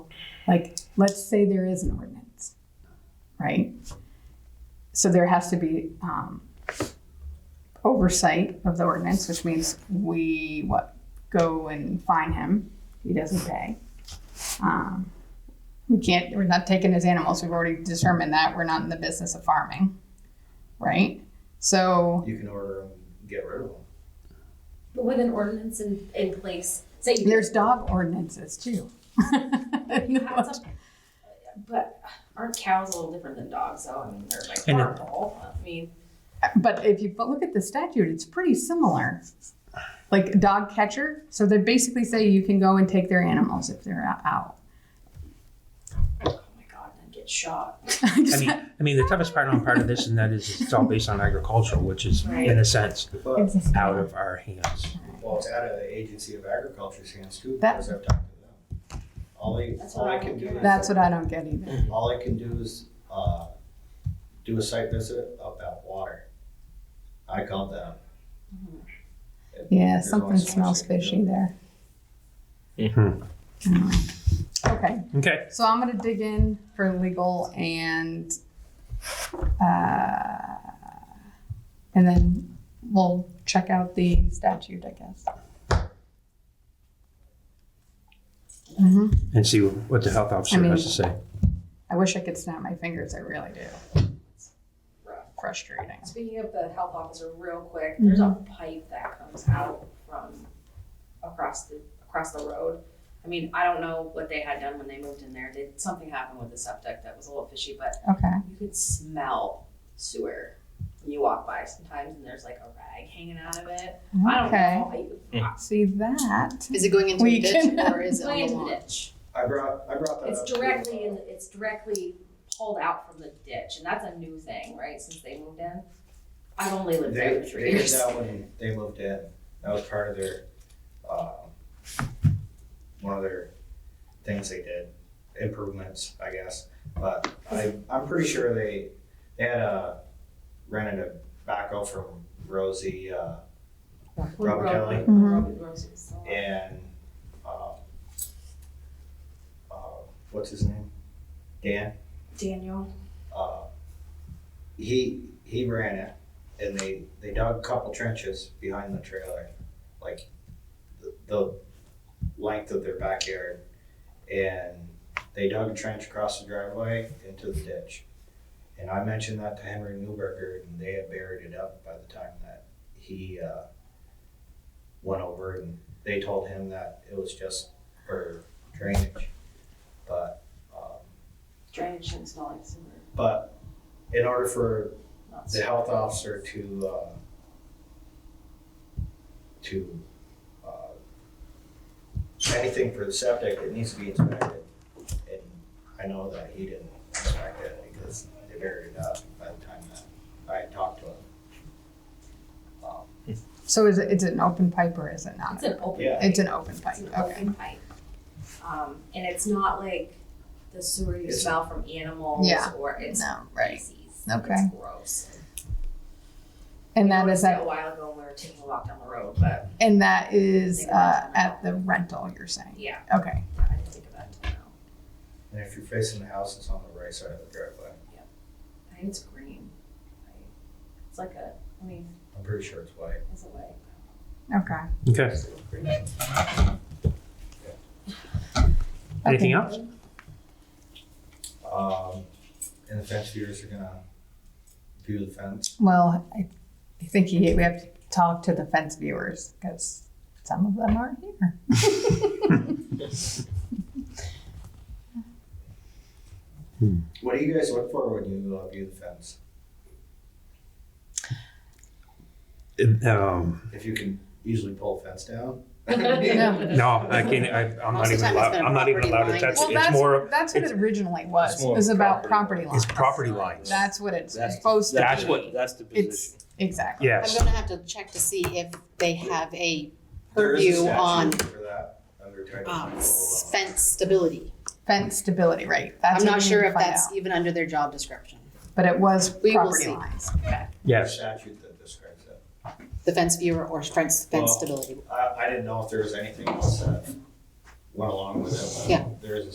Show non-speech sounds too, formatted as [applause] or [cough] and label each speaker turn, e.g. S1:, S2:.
S1: Like, let's say there is an ordinance, right? So there has to be um, oversight of the ordinance, which means we what go and fine him. He doesn't pay. Um, we can't. We're not taking his animals. We've already determined that we're not in the business of farming, right? So
S2: You can order them, get rid of them.
S3: But with an ordinance in, in place, say you
S1: there's dog ordinances too. [laughs]
S3: have to- but aren't cows a little different than dogs? though? I mean, they're like
S4: And it-
S3: horrible. I mean,
S1: But if you look at the statute, it's pretty similar. Like dog catcher, so they basically say you can go and take their animals if they're o- out.
S3: oh my god, I'd get shot.
S1: [laughs]
S4: I mean, I mean, the toughest part on part of this and that is it's all based on agricultural, which is in a sense
S2: But,
S4: out of our hands.
S2: well, it's out of the Agency of Agriculture's hands too,
S1: That-
S2: because I've talked to them. All they,
S3: That's
S2: all
S3: what
S2: I
S3: I
S2: can
S3: don't
S2: do
S3: get.
S2: is.
S1: That's what I don't get either.
S2: All I can do is, uh, do a site visit about water. I called them.
S1: Yeah,
S2: There's
S1: something
S2: only so much
S1: smells
S2: they can do. Hmm.
S1: fishy there.
S4: Mhm.
S1: Hmm. Okay,
S4: Okay.
S1: so I'm gonna dig in for legal and, uh, and then we'll check out the statute, I guess. hmm
S4: And see what the health officer
S1: I mean-
S4: has to say.
S1: I wish I could snap my fingers. I really do. Frustrating.
S3: Speaking of the health officer, real quick, there's a pipe that comes out from across the across the road. I mean, I don't know what they had done when they moved in there. Did something happen with the septic that was a little fishy? But
S1: Okay.
S3: you could smell sewer. when You walk by sometimes, and there's like a rag hanging out of it. I don't
S1: Okay.
S3: know.
S1: See that?
S5: Is it going into
S1: We
S5: a ditch
S1: can-
S5: or
S3: It's
S5: is it on
S3: going
S5: the
S3: into the
S5: lawn?
S3: ditch.
S2: I brought, I brought that up.
S3: It's
S2: to,
S3: directly
S2: uh,
S3: in. It's directly pulled out from the ditch, and that's a new thing, right? Since they moved in, I've only lived
S2: They,
S3: there for three
S2: they did
S3: years.
S2: that when they moved in. That was part of their, um, one of their things they did, improvements, I guess. But I, I'm pretty sure they, they had a, rented a backhoe from Rosie, uh, Robert Kelly.
S1: Mhm.
S3: Robert Rosas, so-
S2: and, um, uh, what's his name? Dan?
S3: Daniel.
S2: uh, he he ran it, and they they dug a couple trenches behind the trailer, like the, the length of their backyard, and they dug a trench across the driveway into the ditch. And I mentioned that to Henry Newberger, and they had buried it up by the time that he uh, went over, and they told him that it was just for drainage, but. Um,
S3: Drainage shouldn't smell like sewer.
S2: but in order for
S3: Not
S2: the
S3: sewer.
S2: health officer to, uh, to, uh, anything for the septic, it needs to be inspected. And I know that he didn't inspect it because they buried it up by the time that I had talked to him. Um,
S1: So is it, it's an open pipe or is it not?
S3: It's an open.
S2: Yeah.
S1: It's an open pipe.
S3: It's an
S1: Okay.
S3: open pipe. Um, and it's not like the sewer you
S2: It's-
S3: smell from animals
S1: Yeah.
S3: or it's
S1: No, right.
S3: feces.
S1: Okay.
S3: It's gross.
S1: And that
S3: We
S1: is
S3: noticed
S1: at,
S3: it A while ago when we were taking a walk down the road, but
S1: and that is uh, at the rental, you're saying?
S3: yeah,
S1: Okay.
S3: I didn't think of that until now.
S2: And if you're facing the house, it's on the right side of the driveway.
S3: I think it's green. right? It's like a, I mean,
S2: I'm pretty sure it's white.
S3: it's a way.
S1: Okay.
S4: Okay. Anything
S1: Okay.
S4: else?
S2: Um, and the fence viewers are gonna view the fence.
S1: Well, I I think he, we have to talk to the fence viewers because some of them aren't here.
S2: What do you guys look for when you uh, view the fence?
S4: Um,
S2: If you can usually pull a fence down?
S4: [laughs]
S1: No.
S4: no, I can't. I, I'm not
S5: Most of
S4: even
S5: the time it's
S4: allowed.
S5: been a
S4: I'm not even
S5: property
S4: allowed to
S5: line.
S4: touch
S1: Well,
S4: it. It's more.
S1: that's,
S4: of-
S1: that's what it
S4: it's-
S1: originally
S6: it's
S1: was.
S6: more
S1: It was about property
S6: property
S1: lines.
S4: It's property lines.
S1: That's what it's
S6: That's-
S1: supposed to
S6: That's
S1: be.
S6: what, that's the
S1: It's,
S6: position.
S1: exactly.
S5: I'm
S4: yes.
S5: gonna have to check to see if they have a
S2: There is a
S5: purview on
S2: statute For that, under Title
S5: um, s-
S2: 24.
S5: fence stability.
S1: Fence stability, right? That's
S5: I'm
S1: what
S5: not
S1: we
S5: sure
S1: need to
S5: if
S1: find
S5: that's
S1: out.
S5: even under their job description.
S1: But it was
S5: We will
S1: property
S5: see.
S1: lines.
S2: There's a
S4: Yes.
S2: Statute that describes it.
S5: The fence viewer or fence,
S2: Well,
S5: fence stability.
S2: I, I didn't know if there was anything else that went along with it. but
S5: Yeah.
S2: There is a